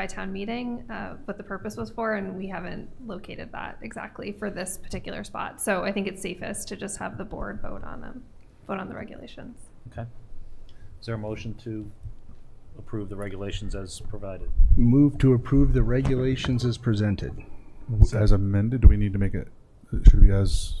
by town meeting, uh, what the purpose was for, and we haven't located that exactly for this particular spot. So I think it's safest to just have the board vote on them, vote on the regulations. Okay. Is there a motion to approve the regulations as provided? Move to approve the regulations as presented. W- As amended, do we need to make it, should be as,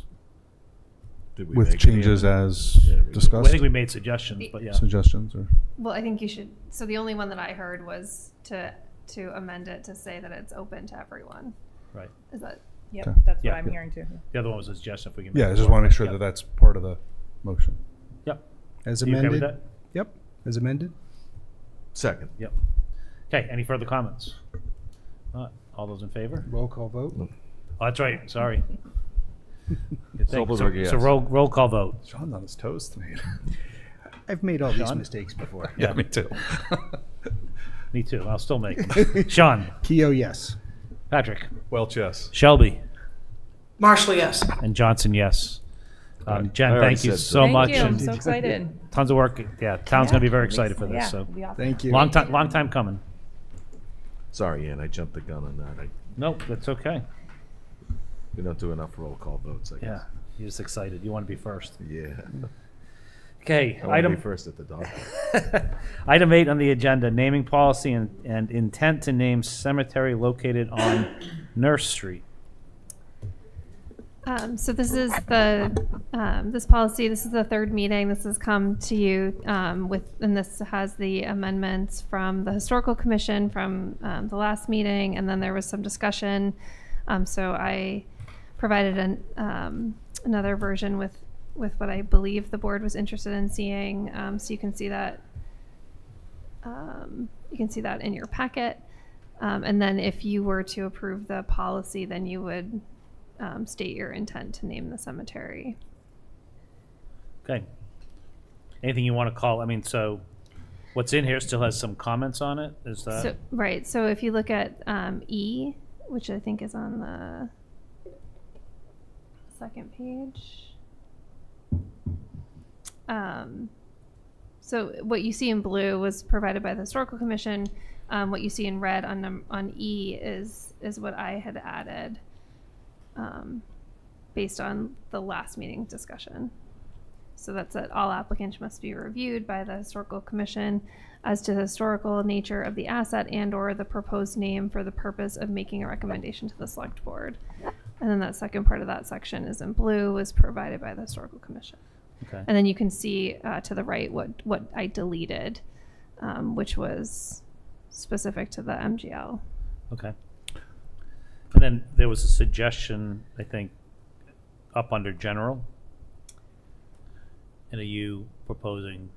Did we with make any changes amendments? as Yeah, we did. Well, discussed? I think we made suggestions, but yeah. Suggestions or, Well, I think you should, so the only one that I heard was to, to amend it to say that it's open to everyone. Right. Is that, Yep, Okay. that's what Yeah. I'm hearing too. The other one was a suggestion if we can. yeah, make I it just want to make sure more- that that's part of the motion. Yep. As Yep. You okay with amended? that? Yep, as amended. Second. Yep. Okay, any further comments? Not. All those in favor? Roll call vote. Mm. Oh, that's right, sorry. Good thing. So Zolberg, yes. so roll, roll call vote. Sean's on his toes tonight. I've made all these Sean? mistakes before. Yeah, me too. Me too, I'll still make them. Sean, Keo, yes. Patrick, Welch, yes. Shelby, Marshall, yes. and Johnson, yes. Um, I Jen, already thank you said so Thank much. you, I'm and so excited. Tons of work, yeah, town's gonna be very excited for Yeah, this, so. it'll be awesome. Thank you. Long time, long time coming. Sorry, Ann, I jumped the gun on that. I, Nope, that's okay. we don't do enough roll call votes, I Yeah, guess. you're just excited. You want to be first. Yeah. Okay, I want to be item, first at the dog. item eight on the agenda, naming policy and, and intent to name cemetery located on Nurse Street. Um, so this is the, um, this policy, this is the third meeting, this has come to you, um, with, and this has the amendments from the historical commission from, um, the last meeting, and then there was some discussion. Um, so I provided an, um, another version with, with what I believe the board was interested in seeing, um, so you can see that um, you can see that in your packet. Um, and then if you were to approve the policy, then you would um, state your intent to name the cemetery. Okay. Anything you want to call, I mean, so what's in here still has some comments on it, is So, that? right. So if you look at um, E, which I think is on the second page. Um, so what you see in blue was provided by the historical commission. Um, what you see in red on num- on E is is what I had added, um, based on the last meeting discussion. So that's it. All applicants must be reviewed by the historical commission as to the historical nature of the asset and/or the proposed name for the purpose of making a recommendation to the select board. And then that second part of that section is in blue, was provided by the historical commission. Okay, And then you can see uh, to the right what what I deleted, um, which was specific to the MGL. okay. And then there was a suggestion, I think, up under general. And are you proposing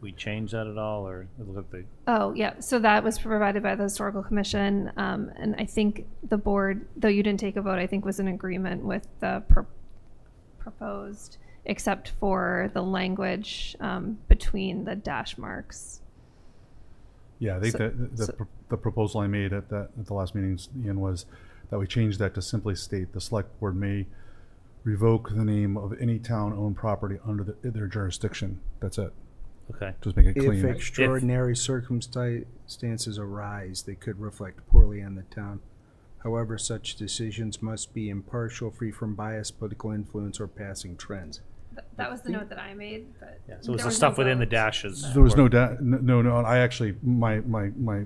we change that at all, or it looked like the Oh, yeah. So that was provided by the historical commission, um, and I think the board, though you didn't take a vote, I think was in agreement with the pro- proposed, except for the language um, between the dash marks. Yeah, I think So- that the, so- pro- the proposal I made at that, at the last meeting, Ian, was that we change that to simply state the select board may revoke the name of any town-owned property under the- their jurisdiction. That's it. Okay, Just make it If clean. extraordinary circumstances arise, they could reflect poorly on the town. However, such decisions must be impartial, free from bias, political influence, or passing trends. Th- That was the note that I made, but. Mm-hmm. yeah, so it was there no the stuff within the vote. dashes. There was were- no, da- no, no, I actually, my, my, my,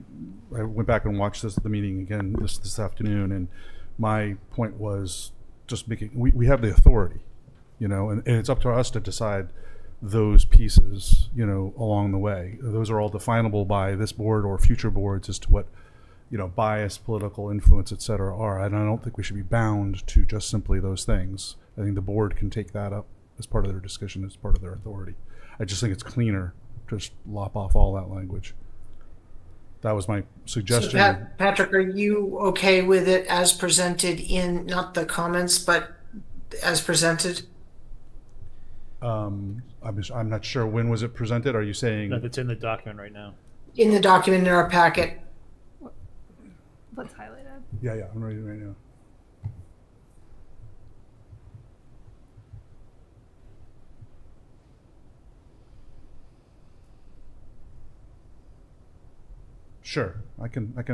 I went back and watched this, the meeting again this, this afternoon, and my point was just making, we, we have the authority, you know, and, and it's up to us to decide those pieces, you know, along the way. Those are all definable by this board or future boards as to what, you know, bias, political influence, et cetera, are. And I don't think we should be bound to just simply those things. I think the board can take that up as part of their discussion, as part of their authority. I just think it's cleaner, to just lop off all that language. That was my So suggestion. Pat, Patrick, are you okay with it as presented in, not the comments, but as presented? Um, I'm, just- I'm not sure, when was it presented? Are you No, saying, it's in the document right now. In the document in our packet? What's highlighted? yeah, yeah, I'm reading it right now. Sure, I can, I can